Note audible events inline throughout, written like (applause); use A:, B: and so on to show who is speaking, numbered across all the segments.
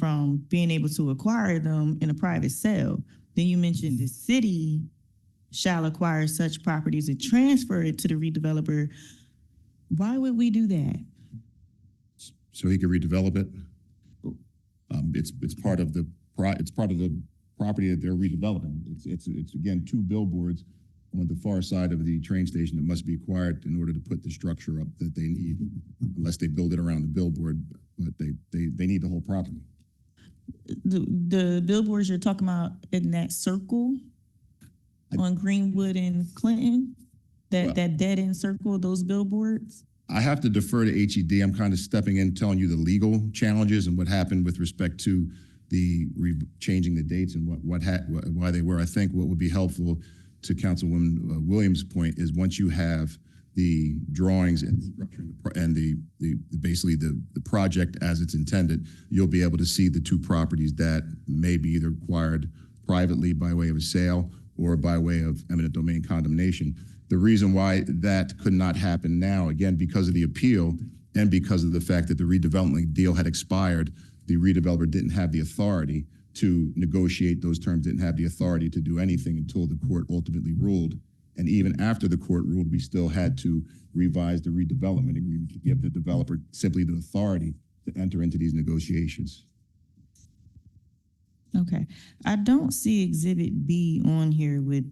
A: from being able to acquire them in a private sale. Then you mentioned the city shall acquire such properties and transfer it to the redeveloper. Why would we do that?
B: so he could redevelop it. Um, it's, it's part of the, pro it's part of the property that they're redeveloping. It's, it's, it's again, two billboards on the far side of the train station that must be acquired in order to put the structure up that they need, unless they build it around the billboard, but they, they, they need the whole property.
A: The, the billboards you're talking about in that circle
B: I-
A: on Greenwood and Clinton,
B: Well-
A: that, that dead end circle, those billboards?
B: I have to defer to HED. I'm kind of stepping in, telling you the legal challenges and what happened with respect to the re- changing the dates and what, what had, wh- why they were. I think what would be helpful to Councilwoman uh, Williams' point is once you have the drawings and structure and the pro- and the, the, basically the, the project as it's intended, you'll be able to see the two properties that may be either acquired privately by way of a sale or by way of eminent domain condemnation. The reason why that could not happen now, again, because of the appeal and because of the fact that the redevelopment deal had expired, the redeveloper didn't have the authority to negotiate those terms, didn't have the authority to do anything until the court ultimately ruled. And even after the court ruled, we still had to revise the redevelopment agreement to give the developer simply the authority to enter into these negotiations.
A: Okay, I don't see Exhibit B on here with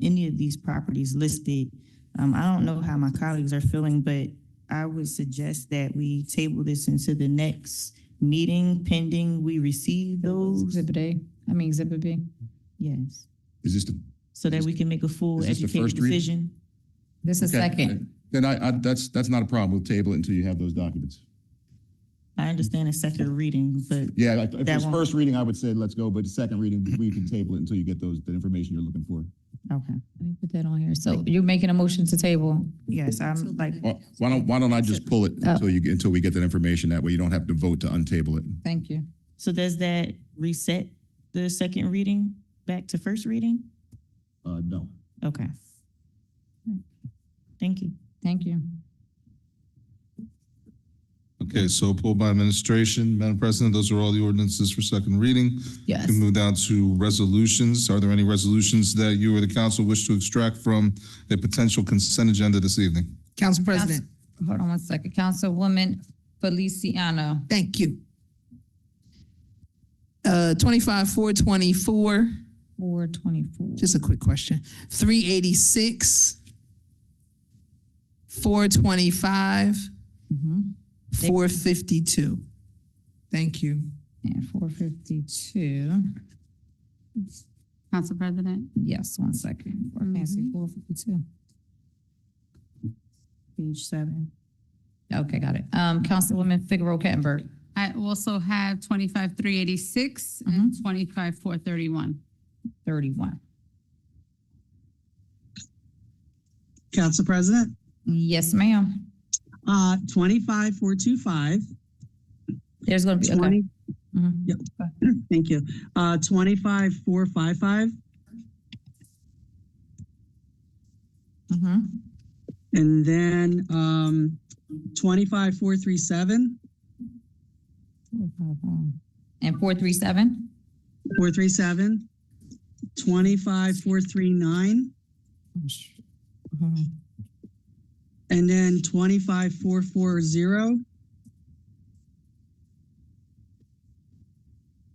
A: any of these properties listed. Um, I don't know how my colleagues are feeling, but I would suggest that we table this into the next meeting pending we receive those.
C: Exhibit A, I mean Exhibit B.
A: Yes,
B: Is this the?
A: so that we can make a full
B: Is this the
A: educated
B: first reading?
A: decision.
C: This is
B: Okay.
C: second.
B: Then I, I, that's, that's not a problem. We'll table it until you have those documents.
A: I understand it's second reading, but
B: Yeah, like, if
A: That
B: it's
A: won't-
B: first reading, I would say let's go, but the second reading, we can table it until you get those, the information you're looking for.
A: okay,
C: Let me put that on here. So you're making a motion to table.
A: yes, I'm like,
B: Why- Why don't, why don't I just pull it until you, until we get that information? That way you don't have to vote to untable it.
C: Thank you.
A: so does that reset the second reading back to first reading?
B: Uh, no.
A: Okay. Thank you.
C: Thank you.
D: Okay, so pulled by administration. Madam President, those are all the ordinances for second reading. We
C: Yes.
D: can move down to resolutions. Are there any resolutions that you or the council wish to extract from a potential consent agenda this evening?
C: Council-
E: Council President,
C: Hold on one second. Councilwoman Feliciano.
E: thank you. Uh, twenty-five, four twenty-four,
C: Four twenty-four.
E: just a quick question, three eighty-six, four twenty-five, Mm-hmm. four fifty-two. Thank you.
C: And four fifty-two.
F: Council President,
C: Yes, one second. Four fancy, four fifty-two.
A: Page seven.
C: Okay, got it. Um, Councilwoman Figaro Kettenberg.
F: I also have twenty-five, three eighty-six and
G: Mm-hmm.
F: twenty-five, four thirty-one.
C: 31.
G: Council President,
C: Yes, ma'am.
G: uh, twenty-five, four, two, five,
C: There's going to be, okay.
G: twenty,
C: Mhm.
G: thank you, uh, twenty-five, four, five, five,
C: Mhm.
G: and then, um, twenty-five, four, three, seven,
C: Mm-hmm. And 437,
G: four, three, seven, twenty-five, four, three, nine, and then twenty-five, four, four, zero.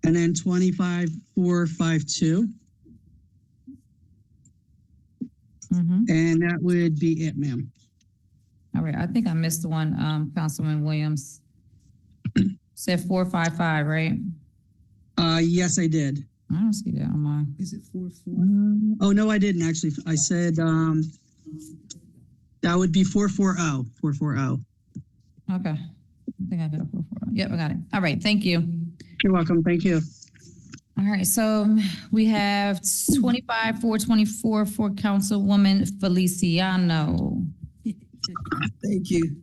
G: And then twenty-five, four, five, two,
C: Mhm.
G: and that would be it, ma'am.
C: All right, I think I missed the one, um, Councilman Williams. (clears throat) Said four, five, five, right?
G: Uh, yes, I did.
C: I don't see that on Mm-hmm. mine.
E: Is it four, four?
G: Um, Oh, no, I didn't actually. I said, um, that would be oh, 440, 440.
C: Okay. I think I got it. four, four. Yep, I got it. All right, thank you.
G: You're welcome. Thank you.
C: All right, so we have twenty-five, four twenty-four for Councilwoman Feliciano.
G: Thank you.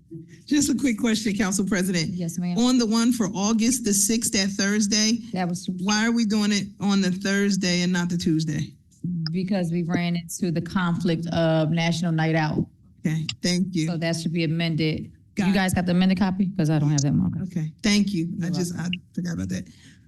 E: Just a quick question, Council President.
C: Yes, ma'am.
E: On the one for August the sixth, that Thursday,
C: That was
E: why are we doing it on the Thursday and not the Tuesday?
C: because we ran into the conflict of National Night Out.
E: Okay, thank you.
C: So that should be amended
E: Got
C: You
E: it.
C: guys got the amended copy? Because I don't have that marker.
E: Okay, thank you. I just, I forgot about that.